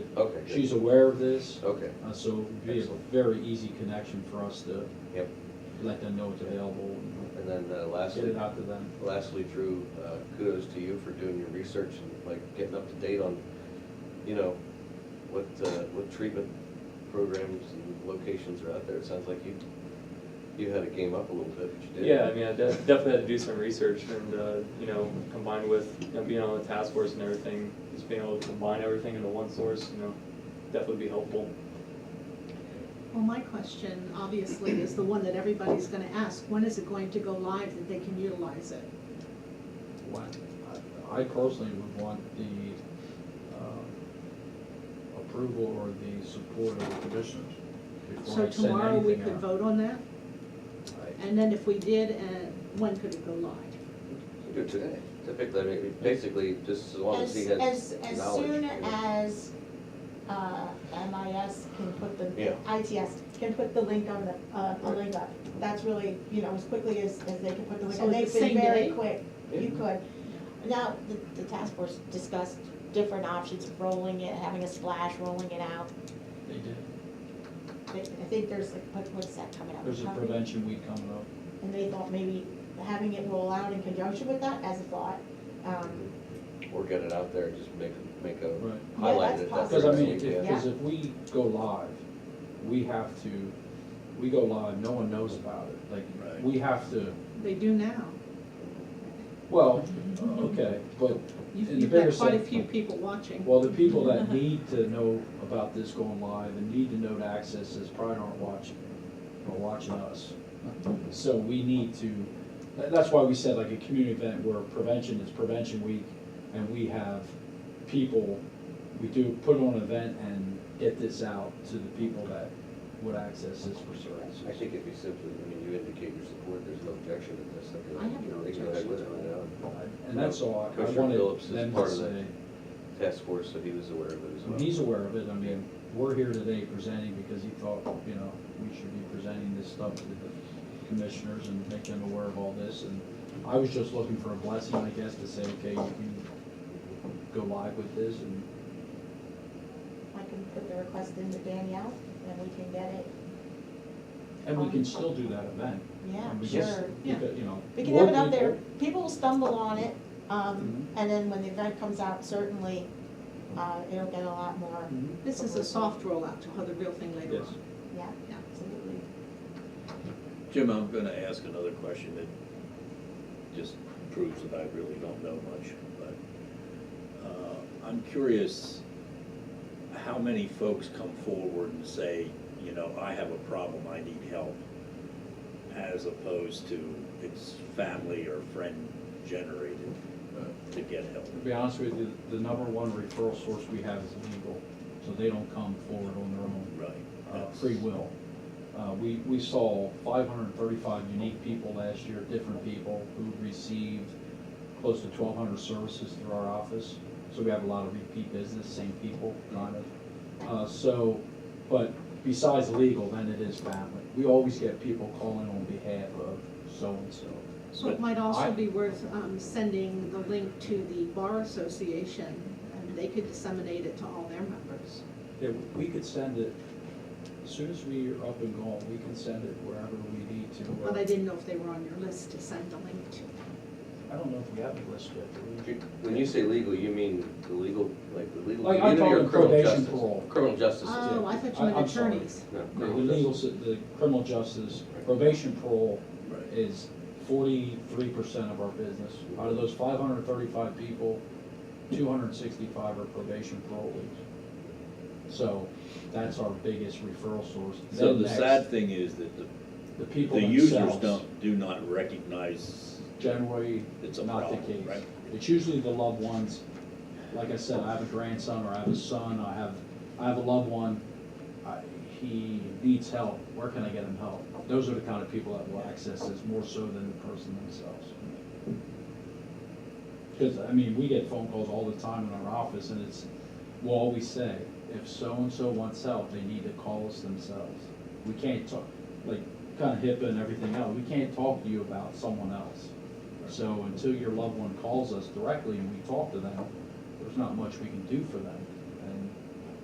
Okay, good. She's aware of this, Okay, uh, so it would be a Excellent. very easy connection for us to yep. let them know it's available and And then uh, get lastly, it out to them. lastly, Drew, uh, kudos to you for doing your research and like getting up to date on, you know, what, uh, what treatment programs and locations are out there. It sounds like you, you had a game up a little bit, but you did. Yeah, I mean, I de- definitely had to do some research and, uh, you know, combined with you know, being on the task force and everything, just being able to combine everything into one source, you know, definitely be helpful. Well, my question, obviously, is the one that everybody's gonna ask, when is it going to go live that they can utilize it? What- I I personally would want the uh, approval or the support of the commissioners before So I send tomorrow, we could anything out. vote on that, I- and then if we did, uh, when could it go live? You do it today. Typically, I mean, basically, just as long as As, he has knowledge. as, as soon you know. as, uh, MIS can put Yeah. the, ITS can put the link on the, uh, a Right. link up. That's really, you know, as quickly as, as they can put the link, So and it's they've the been same very day? quick, Yeah. you could. Now, the, the task force discussed different options, of rolling it, having a splash, rolling it out. They did. They- I think there's, like, what, what's that coming up? There's a Coming- prevention week coming up. And they thought maybe having it roll out in conjunction with that as a thought, um, Or get it out there and just make, make a Right. Yeah, highlight that's it. possible. Because I mean, Yeah. because if we go live, we have to, we go live, no one knows about it. Like, Right. we have to, They do now. well, okay, but, You've, In the you've bigger got quite a sense. few people watching. well, the people that need to know about this going live and need to know to access this probably aren't watching, or watching us. So we need to, tha- that's why we said like a community event where prevention is prevention week, and we have people, we do put on an event and get this out to the people that would access this for services. I think if you simply, I mean, you indicate your support, there's no objection to this. think I have no they can go ahead with it, objection to you know. And that's all, I- I Commissioner Phillips wanted is them to part of that. say, task force, so he was aware of it as well. he's aware of it, I mean, we're here today presenting because he thought, you know, we should be presenting this stuff to the commissioners and make them aware of all this, and I was just looking for a blessing, I guess, to say, okay, you can go live with this, and I can put the request in to Danielle, and we can get it, And we can still do that event. yeah, And we just- sure. we could, You know. We can have it more out there, people- Mm-hmm. people will stumble on it, um, and then when the event comes out, certainly, uh, it'll get a lot more, Mhm. This is a soft rollout, you'll have the real thing later Yes. on. yeah, Yeah. absolutely. Jim, I'm gonna ask another question that just proves that I really don't know much, but, uh, I'm curious how many folks come forward and say, you know, I have a problem, I need help, as opposed to it's family or friend generated uh, to get help? To be honest with you, the number one referral source we have is legal, so they don't come forward on their own Right. uh, that's- free will. Uh, We, we saw 535 unique people last year, different people who received close to 1,200 services through our office. So we have a lot of repeat business, same people, kind of. Uh, So, but besides legal, then it is family. We always get people calling on behalf of so-and-so. So it But might also I- be worth um, sending the link to the Bar Association, and they could disseminate it to all their members. Yeah, we could send it, as soon as we are up and going, we can send it wherever we need to. But I didn't know if they were on your list to send the link to. I don't know if we have a list yet, do we? When you say legal, you mean the legal, like the legal Like, I'm community or talking criminal probation justice? parole. Criminal justice. is- Oh, I thought you I- meant I'm sorry. attorneys. No, The criminal legal, justice. si- the criminal justice, probation parole Right. is forty-three percent of our business. Out of those five hundred and thirty-five people, two hundred and sixty-five are probation parolees. So that's our biggest referral source. So Then the next, sad thing is that the, The people the users themselves don't, do not recognize generally it's a not the problem, case. right? It's usually the loved ones, like I said, I have a grandson or I have a son, I have, I have a loved one, I, he needs help, where can I get him help? Those are the kind of people that will access this more so than the person themselves. Cause I mean, we get phone calls all the time in our office and it's, we'll always say, if so-and-so wants help, they need to call us themselves. We can't talk, like, kinda HIPAA and everything else, we can't talk to you about someone else. So until your loved one calls us directly and we talk to them, there's not much we can do for them.